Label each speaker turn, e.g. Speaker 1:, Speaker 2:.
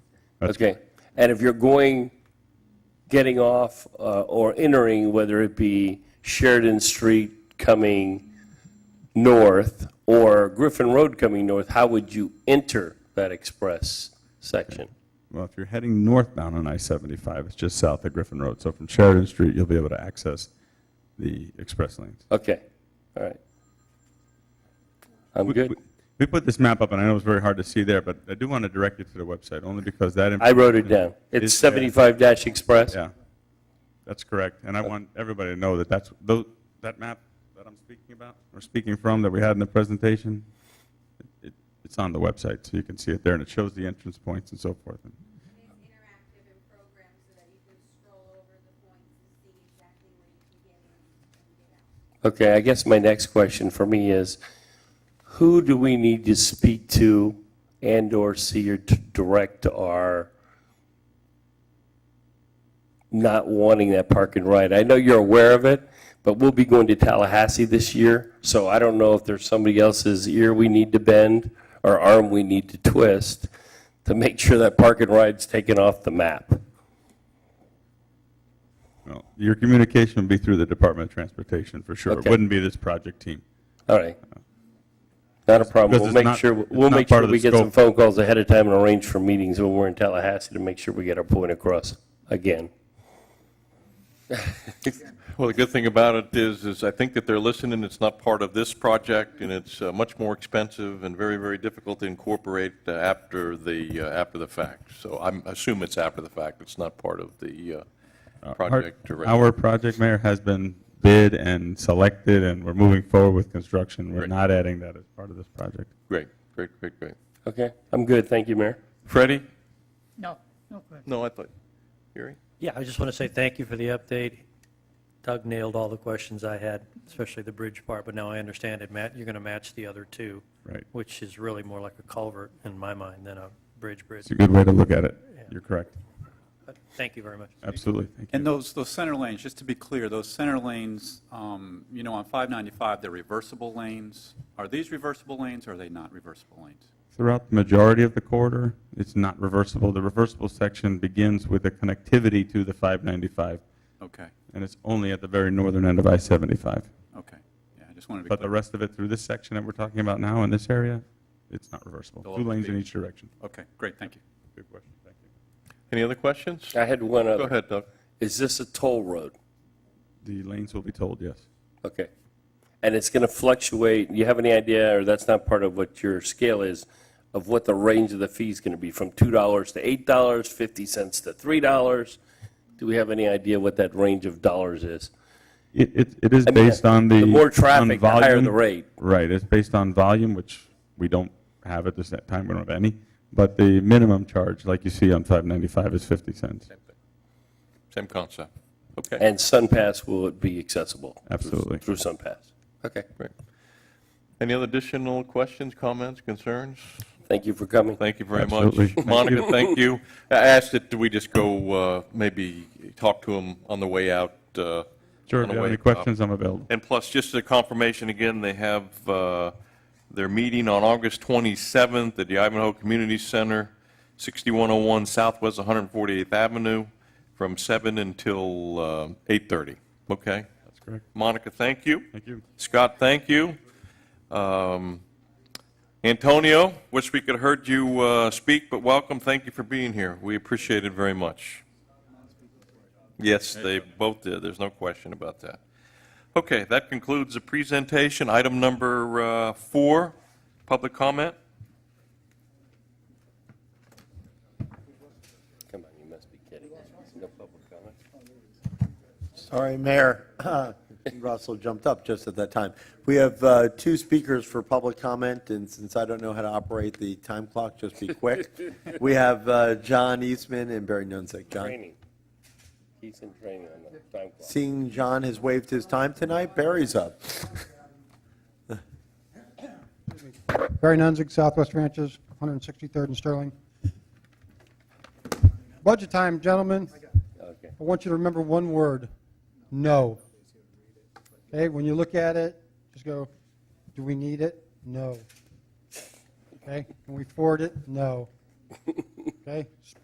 Speaker 1: Okay. And if you're going, getting off uh, or entering, whether it be Sheridan Street coming north or Griffin Road coming north, how would you enter that express section?
Speaker 2: Well, if you're heading northbound on I-75, it's just south of Griffin Road. So from Sheridan Street, you'll be able to access the express lanes.
Speaker 1: Okay, all right. I'm
Speaker 2: We-
Speaker 1: good.
Speaker 2: we- We put this map up, and I know it's very hard to see there, but I do want to direct you to the website, only because that.
Speaker 1: I wrote it down. It's
Speaker 2: Is there-
Speaker 1: 75 dash express?
Speaker 2: Yeah, that's correct. And I want everybody to know that that's, tho- that map that I'm speaking about, or speaking from, that we had in the presentation, it- it- it's on the website, so you can see it there, and it shows the entrance points and so forth. And
Speaker 3: It's interactive and programmed so that you can scroll over the points to see exactly where you can get in and get out.
Speaker 1: Okay, I guess my next question for me is, who do we need to speak to and/or see or to direct our not wanting that park and ride? I know you're aware of it, but we'll be going to Tallahassee this year, so I don't know if there's somebody else's ear we need to bend or arm we need to twist to make sure that park and ride's taken off the map.
Speaker 2: Well, your communication would be through the Department of Transportation, for sure. It
Speaker 1: Okay.
Speaker 2: wouldn't be this project team.
Speaker 1: All right. Not a problem.
Speaker 2: Because
Speaker 1: We'll
Speaker 2: it's
Speaker 1: make
Speaker 2: not-
Speaker 1: sure,
Speaker 2: it's
Speaker 1: we'll
Speaker 2: not
Speaker 1: make
Speaker 2: part
Speaker 1: sure
Speaker 2: of
Speaker 1: we
Speaker 2: the
Speaker 1: get some
Speaker 2: scope.
Speaker 1: phone calls ahead of time and arrange for meetings when we're in Tallahassee to make sure we get our point across again.
Speaker 4: Well, the good thing about it is, is I think that they're listening, it's not part of this project, and it's uh, much more expensive and very, very difficult to incorporate uh, after the, uh, after the fact. So I'm, assume it's after the fact, it's not part of the uh,
Speaker 2: Our-
Speaker 4: project directly.
Speaker 2: Our project, Mayor, has been bid and selected, and we're moving forward with construction. We're
Speaker 4: Great.
Speaker 2: not adding that as part of this project.
Speaker 4: Great, great, great, great.
Speaker 1: Okay, I'm good. Thank you, Mayor.
Speaker 4: Freddie?
Speaker 5: No, no, go ahead.
Speaker 4: No, I thought, Gary?
Speaker 6: Yeah, I just want to say thank you for the update. Doug nailed all the questions I had, especially the bridge part, but now I understand it. Matt, you're going to match the other two.
Speaker 2: Right.
Speaker 6: Which is really more like a culvert in my mind than a bridge bridge.
Speaker 2: It's a good way to look at it. You're correct.
Speaker 6: But Thank you very much.
Speaker 2: Absolutely. Thank you.
Speaker 7: And those, those center lanes, just to be clear, those center lanes, um, you know, on 595, they're reversible lanes. Are these reversible lanes or are they not reversible lanes?
Speaker 2: Throughout the majority of the corridor, it's not reversible. The reversible section begins with a connectivity to the 595,
Speaker 7: Okay,
Speaker 2: and it's only at the very northern end of I-75.
Speaker 7: okay. Yeah, I just wanted to be
Speaker 2: But the
Speaker 7: clear.
Speaker 2: rest of it through this section that we're talking about now in this area, it's not reversible.
Speaker 7: They'll
Speaker 2: Two lanes in
Speaker 7: be-
Speaker 2: each direction.
Speaker 7: Okay, great, thank you.
Speaker 2: Good question. Thank you.
Speaker 4: Any other questions?
Speaker 1: I had one
Speaker 4: Go
Speaker 1: other.
Speaker 4: ahead, Doug.
Speaker 1: Is this a toll road?
Speaker 2: The lanes will be told, yes.
Speaker 1: Okay. And it's going to fluctuate. You have any idea, or that's not part of what your scale is, of what the range of the fee is going to be, from $2 to $8, $0.50 to $3? Do we have any idea what that range of dollars is?
Speaker 2: It, it- it is
Speaker 1: I mean,
Speaker 2: based on the.
Speaker 1: The more
Speaker 2: on
Speaker 1: traffic, the higher
Speaker 2: volume.
Speaker 1: the rate.
Speaker 2: Right, it's based on volume, which we don't have at this time, we don't have any. But the minimum charge, like you see on 595, is 50 cents.
Speaker 4: Same concept. Okay,
Speaker 1: And SunPass, will it be accessible?
Speaker 2: Absolutely.
Speaker 1: Through SunPass? Okay.
Speaker 4: great. Any other additional questions, comments, concerns?
Speaker 1: Thank you for coming.
Speaker 4: Thank you very
Speaker 2: Absolutely.
Speaker 4: much.
Speaker 2: Thank
Speaker 4: Monica,
Speaker 2: you.
Speaker 4: thank you. I asked that we just go, uh, maybe talk to him on the way out. uh,
Speaker 2: Sure,
Speaker 4: on
Speaker 2: if you
Speaker 4: the
Speaker 2: have
Speaker 4: way
Speaker 2: any
Speaker 4: up.
Speaker 2: questions, I'm available.
Speaker 4: And plus, just a confirmation again, they have uh, their meeting on August 27th at the Ivanhoe Community Center, 6101 Southwest 148th Avenue, from 7 until uh, 8:30. Okay?
Speaker 2: That's correct.
Speaker 4: Monica, thank you.
Speaker 2: Thank you.
Speaker 4: Scott, thank you. Um, Antonio, wish we could have heard you uh, speak, but welcome. Thank you for being here. We appreciate it very much. Yes, they both did. There's no question about that. Okay, that concludes the presentation. Item number uh, four, public comment.
Speaker 1: Come on, you must be kidding. No public comment?
Speaker 8: Sorry, Mayor. Russell jumped up just at that time. We have uh, two speakers for public comment, and since I don't know how to operate the time clock, just be quick. We have uh, John Eastman and Barry Nunzik. John,
Speaker 1: Training. He's in training on the time clock.
Speaker 8: seeing John has waived his time tonight, Barry's up.
Speaker 9: Barry Nunzig, Southwest Ranches, 163rd and Sterling. Budget time, gentlemen.
Speaker 1: Okay.
Speaker 9: I want you to remember one word, no. Okay, when you look at it, just go, do we need it? No. Okay, can we afford it? No. Okay,